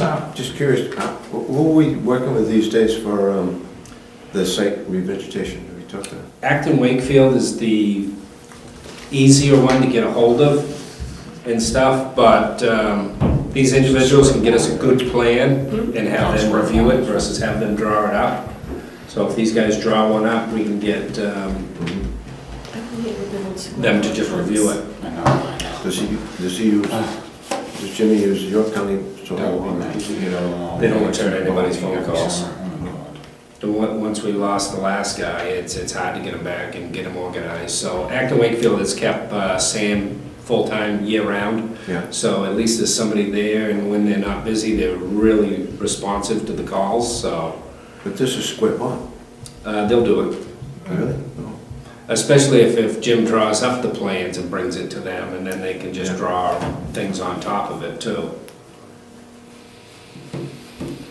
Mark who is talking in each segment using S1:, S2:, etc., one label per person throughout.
S1: Uh, Just curious, uh, wh- who are we working with these days for um, the site revegetation? Have we talked to?
S2: Acton Wakefield is the easier one to get a hold of and stuff, but um, these individuals can get us a good plan and have them review it versus have them draw it up. So if these guys draw one up, we can get um, them to just review it.
S3: I know, I know.
S1: Does he, does he use, does Jimmy use York County soil?
S3: Uh. That would be nice. You know,
S2: They don't return anybody's phone calls.
S3: Oh,
S2: The one- Once we lost the last guy, it's, it's hard to get them back and get them organized. So Acton Wakefield has kept uh, Sam full-time year-round.
S1: Yeah,
S2: So at least there's somebody there, and when they're not busy, they're really responsive to the calls, so
S1: but this is square one,
S2: uh, they'll do it.
S1: really? No.
S3: Mm-hmm.
S2: Especially if, if Jim draws up the plans and brings it to them, and then they can just draw things on top of it too.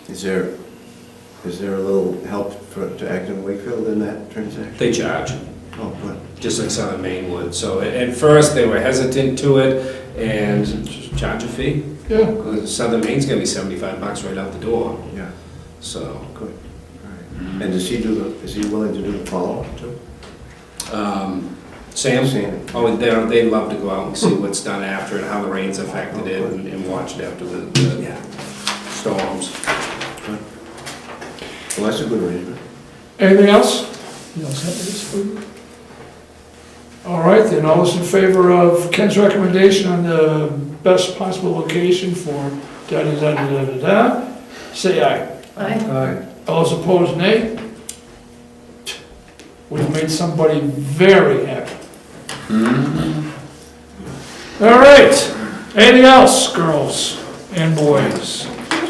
S1: Is there, is there a little help for, to Acton Wakefield in that transaction?
S2: They charge,
S1: Oh, good.
S2: just like Southern Maine would. So at, at first, they were hesitant to it and just charge a fee.
S1: Yeah.
S2: 'Cause Southern Maine's gonna be seventy-five bucks right out the door,
S1: Yeah,
S2: so.
S1: good. All right. And does he do the, is he willing to do the follow-up too?
S2: um, Sam?
S1: Sam.
S2: Oh, they they love to go out and see what's done after and how the rains affected it and and watch it after the- the storms.
S1: Well, that's a good arrangement.
S4: Anything else? You all set with this, Ruben? All right, then, all those in favor of Ken's recommendation on the best possible location for da-da-da-da-da-da, say aye.
S1: All right.
S4: All those opposed, nay? We've made somebody very happy. All right, anything else, girls and boys?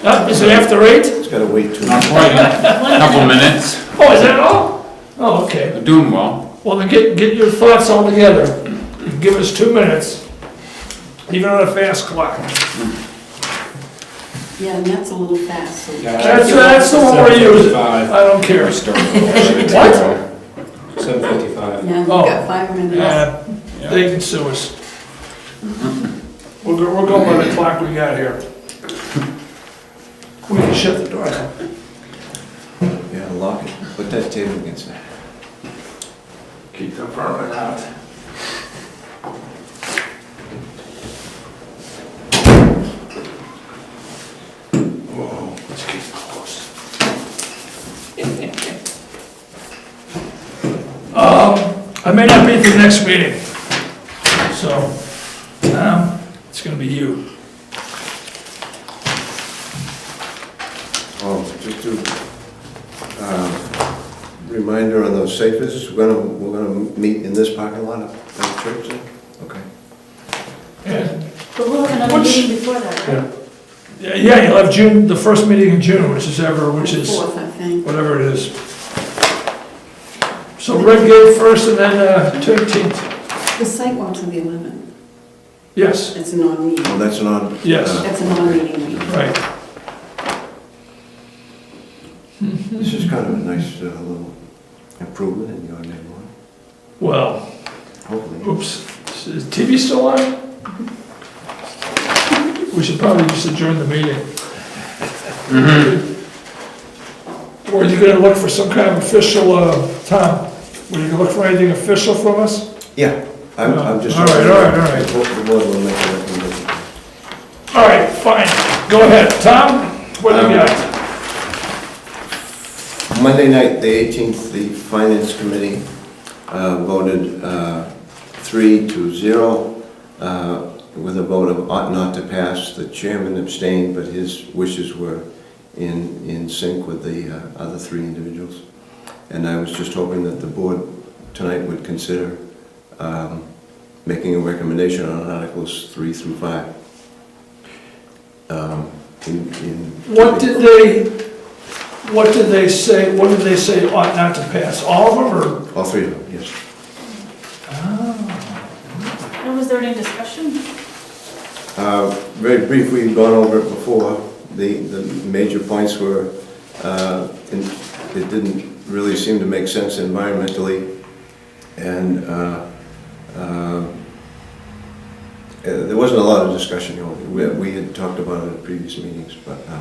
S4: Up, is it after eight?
S1: It's gotta wait till.
S3: Not quite, a couple minutes,
S4: Oh, is that all? Oh, okay.
S3: We're doing well.
S4: Well, then get, get your thoughts all together. Give us two minutes, even on a fast clock.
S5: Yeah, and that's a little fast, so.
S4: That's, that's the one we're using.
S2: Five.
S4: I don't care. What?
S2: Seven fifty-five.
S5: Yeah, we've
S4: Oh.
S5: got five minutes.
S4: Uh, They can sue us. We're, go- we're going by the clock we got here. We can shut the door.
S1: Yeah, lock it. Put that table against that.
S4: Keep the vermin out. Whoa, let's keep it close. Um, I may not be at the next meeting, so, um, it's gonna be you.
S1: Oh, just to, um, reminder on those safe visits, we're gonna, we're gonna meet in this parking lot at the church then? Okay.
S4: Yeah,
S5: But we'll have another
S4: Which-
S5: meeting before that, right?
S4: yeah, you'll have June, the first meeting in June, which is ever, which is.
S5: Fourth, I think.
S4: whatever it is. So Red Gate first and then uh, 13th.
S5: The site walk's on the eleventh.
S4: Yes,
S5: It's a non-meeting.
S1: Well, that's an odd.
S4: Yes.
S1: uh,
S5: That's a non-meeting meeting.
S4: right.
S1: This is kind of a nice uh, little improvement in your neighborhood,
S4: Well,
S1: hopefully.
S4: oops, is TV still on? We should probably just adjourn the meeting. Or are you gonna look for some kind of official, uh, Tom, were you gonna look for anything official from us?
S1: Yeah, I'm, I'm just.
S4: All right, all right, all right.
S1: I hope the board will make a recommendation.
S4: All right, fine, go ahead, Tom, what do you got?
S1: Monday night, the 18th, the Finance Committee uh, voted uh, three to zero uh, with a vote of ought not to pass. The chairman abstained, but his wishes were in, in sync with the uh, other three individuals. And I was just hoping that the board tonight would consider um, making a recommendation on Articles 3 through 5. Um, in- in-
S4: What did they, what did they say, what did they say ought not to pass, all of them, or?
S1: All three of them, yes.
S6: And was there any discussion?
S1: Uh, Very brief, we've gone over it before. The, the major points were, uh, in- it didn't really seem to make sense environmentally, and uh, uh, uh, there wasn't a lot of discussion, you know, we we had talked about it at previous meetings, but uh,